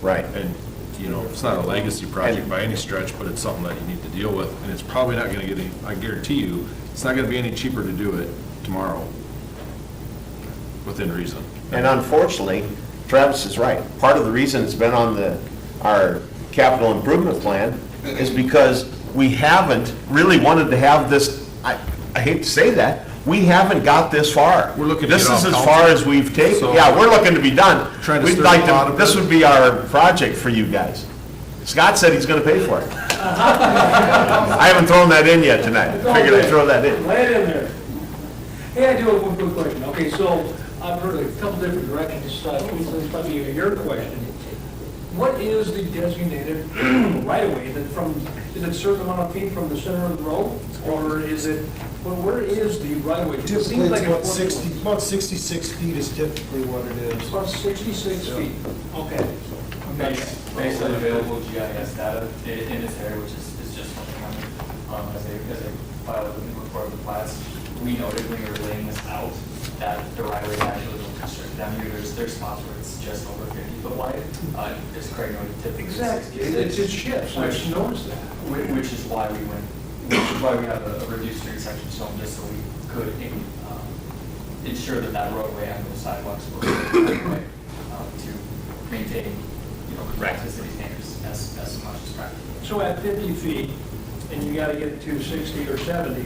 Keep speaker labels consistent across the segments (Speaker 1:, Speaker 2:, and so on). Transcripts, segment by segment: Speaker 1: Right.
Speaker 2: And, you know, it's not a legacy project by any stretch, but it's something that you need to deal with, and it's probably not gonna get any, I guarantee you, it's not gonna be any cheaper to do it tomorrow, within reason.
Speaker 1: And unfortunately, Travis is right. Part of the reason it's been on the, our capital improvement plan is because we haven't really wanted to have this, I, I hate to say that, we haven't got this far.
Speaker 2: We're looking to get
Speaker 1: This
Speaker 2: off
Speaker 1: is as
Speaker 2: council.
Speaker 1: far as we've taken.
Speaker 2: So-
Speaker 1: Yeah, we're looking to be done.
Speaker 2: Trying to
Speaker 1: We'd
Speaker 2: stir
Speaker 1: like
Speaker 2: the pot a
Speaker 1: This
Speaker 2: bit.
Speaker 1: would be our project for you guys. Scott said he's gonna pay for it. I haven't thrown that in yet tonight. Figured I'd throw that in.
Speaker 3: Lay it in there. Hey, I do have one quick question. Okay, so I've heard a couple different directions, so this might be your question. What is the designated right-of-way that from, is it certain amount of feet from the center of the road? Or is it, well, where is the right-of-way? It seems
Speaker 4: Typically, it's
Speaker 3: like
Speaker 4: about
Speaker 3: it's-
Speaker 4: 60, about 66 feet is typically what it is.
Speaker 3: About 66 feet, okay.
Speaker 5: Based based on available GIS data i- in its area, which is, is just what the county, um, as they, as they filed with the report of the plats, we noted when we were laying this out, that the right of way actually will constrict them, here, there's, there's spots where it's just over fifty foot wide, uh, as Craig noted, typically sixty.
Speaker 3: Exactly, it just shifts, I just noticed that.
Speaker 5: Whi- Which is why we went, which is why we have a a reduced street section zone, just so we could in- um, ensure that that roadway and those sidewalks were right, um, to maintain, you know, back to city standards as, as much as practical.
Speaker 3: So at 50 feet, and you gotta get to 60 or 70,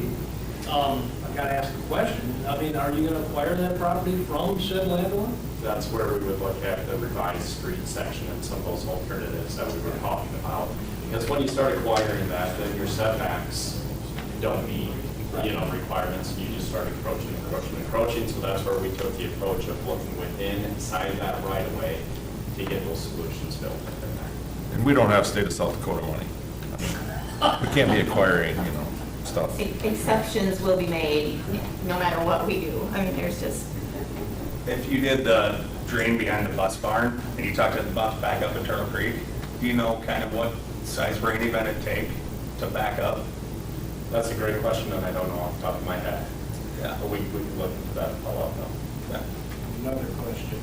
Speaker 3: um, I've gotta ask the question, I mean, are you gonna acquire that property from said landlord?
Speaker 6: That's where we would look at the revised street section and some of those alternatives that we were talking about. Because when you start acquiring that, then your setbacks don't meet, you know, requirements, and you just start encroaching, encroaching, encroaching. So that's where we took the approach of looking within, inside that right of way to get those solutions built in there.
Speaker 2: And we don't have state of South Dakota money. We can't be acquiring, you know, stuff.
Speaker 7: Exceptions will be made, no matter what we do. I mean, there's just,
Speaker 8: If you did the drain behind the bus barn, and you talked about back up at Turtle Creek, do you know kind of what size rain event it'd take to back up?
Speaker 6: That's a great question, and I don't know off the top of my head.
Speaker 8: Yeah.
Speaker 6: But we, we can look into that, and follow up though.
Speaker 9: Another question.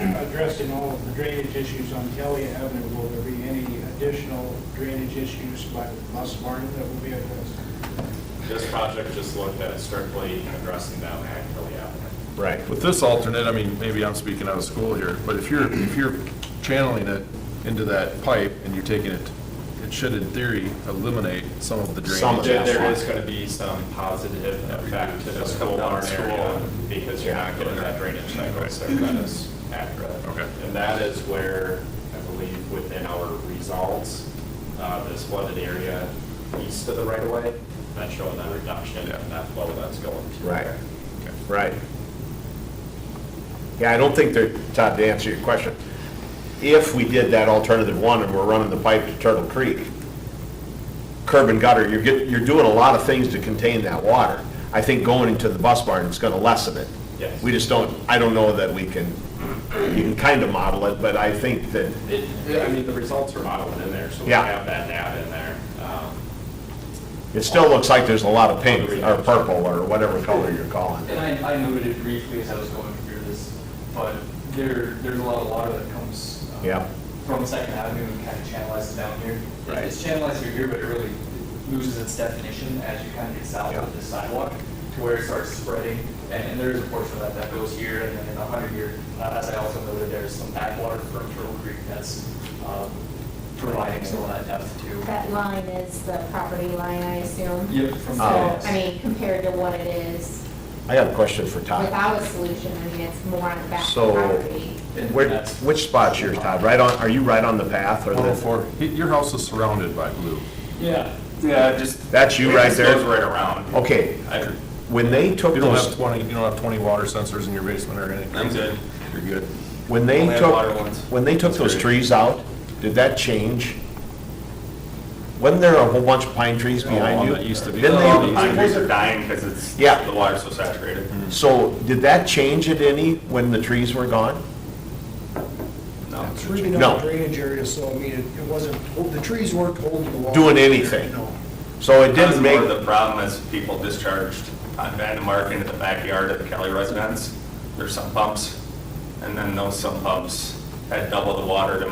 Speaker 9: Addressing all of the drainage issues on Kelly Avenue, will there be any additional drainage issues by the bus barn that will be addressed?
Speaker 6: This project just looked at strictly addressing that at Kelly Avenue.
Speaker 1: Right.
Speaker 2: With this alternate, I mean, maybe I'm speaking out of school here, but if you're, if you're channeling it into that pipe and you're taking it, it should in theory eliminate some of the
Speaker 1: Some of
Speaker 2: drainage.
Speaker 1: it.
Speaker 6: There there is going to be some positive effect to this whole barn area because you're not getting that drainage cycle, so that is accurate.
Speaker 2: Okay.
Speaker 6: And that is where, I believe, within our results, uh, this flooded area east of the right of way, that's showing that reduction and that flow that's going to.
Speaker 1: Right, right. Yeah, I don't think they're, Todd, to answer your question, if we did that alternative one and we're running the pipe to Turtle Creek, curb and gutter, you're getting, you're doing a lot of things to contain that water. I think going into the bus barn is gonna lessen it.
Speaker 6: Yes.
Speaker 1: We just don't, I don't know that we can, you can kind of model it, but I think that,
Speaker 6: It, I mean, the results are modeled in there, so we
Speaker 1: Yeah.
Speaker 6: have that data in there. Um,
Speaker 1: it still looks like there's a lot of pink or purple or whatever color you're calling it.
Speaker 5: And I, I noted it briefly as I was going through this, but there, there's a lot of water that comes. um,
Speaker 1: Yeah.
Speaker 5: From Second Avenue and kind of channelizes down here.
Speaker 1: Right.
Speaker 5: It's channelized through here, but it really loses its definition as you kind of get south
Speaker 1: Yeah.
Speaker 5: of the sidewalk to where it starts spreading. And, and there is a portion of that that goes here and then in the hundred year, uh, as I also noted, there's some backwater from Turtle Creek that's, um, providing some of that depth too.
Speaker 7: that line is the property line, I assume.
Speaker 5: Yep, from
Speaker 7: So,
Speaker 1: Oh.
Speaker 7: I mean, compared to what it is
Speaker 1: I got a question for Todd.
Speaker 7: without a solution, I mean, it's more on the back of the
Speaker 1: Ah. So-
Speaker 7: property.
Speaker 5: And
Speaker 1: Where,
Speaker 5: that's-
Speaker 1: which spot's yours, Todd? Right on, are you right on the path or
Speaker 8: oh
Speaker 1: the,
Speaker 2: 104, Y- your house is surrounded by blue.
Speaker 3: Yeah.
Speaker 8: Yeah, just.
Speaker 1: That's you right there?
Speaker 8: It just goes right around.
Speaker 1: okay,
Speaker 8: I-
Speaker 1: when they took
Speaker 2: You don't have
Speaker 1: those,
Speaker 2: 20, you don't have 20 water sensors in your basement or anything.
Speaker 8: I'm good.
Speaker 2: You're good.
Speaker 1: when they
Speaker 8: Only have water
Speaker 1: took,
Speaker 8: ones.
Speaker 1: when they took those trees out, did that change? Wasn't there a whole bunch of pine trees
Speaker 2: Oh,
Speaker 1: behind
Speaker 2: on
Speaker 1: you?
Speaker 2: the east of-
Speaker 1: Didn't
Speaker 8: All the pine
Speaker 1: they-
Speaker 8: trees are dying because it's,
Speaker 1: Yeah. Mm-hmm.
Speaker 8: the water's so saturated.
Speaker 1: So did that change it any when the trees were gone?
Speaker 8: No.
Speaker 4: It's really
Speaker 1: No.
Speaker 4: not a drainage area, so I mean, it it wasn't, the trees weren't holding the water.
Speaker 1: Doing anything.
Speaker 4: No.
Speaker 1: So it
Speaker 8: That's
Speaker 1: didn't
Speaker 8: more
Speaker 1: make,
Speaker 8: the problem is people discharged on Vandemark into the backyard of the Kelly residence. There's some pumps, and then those sump pumps had double the water to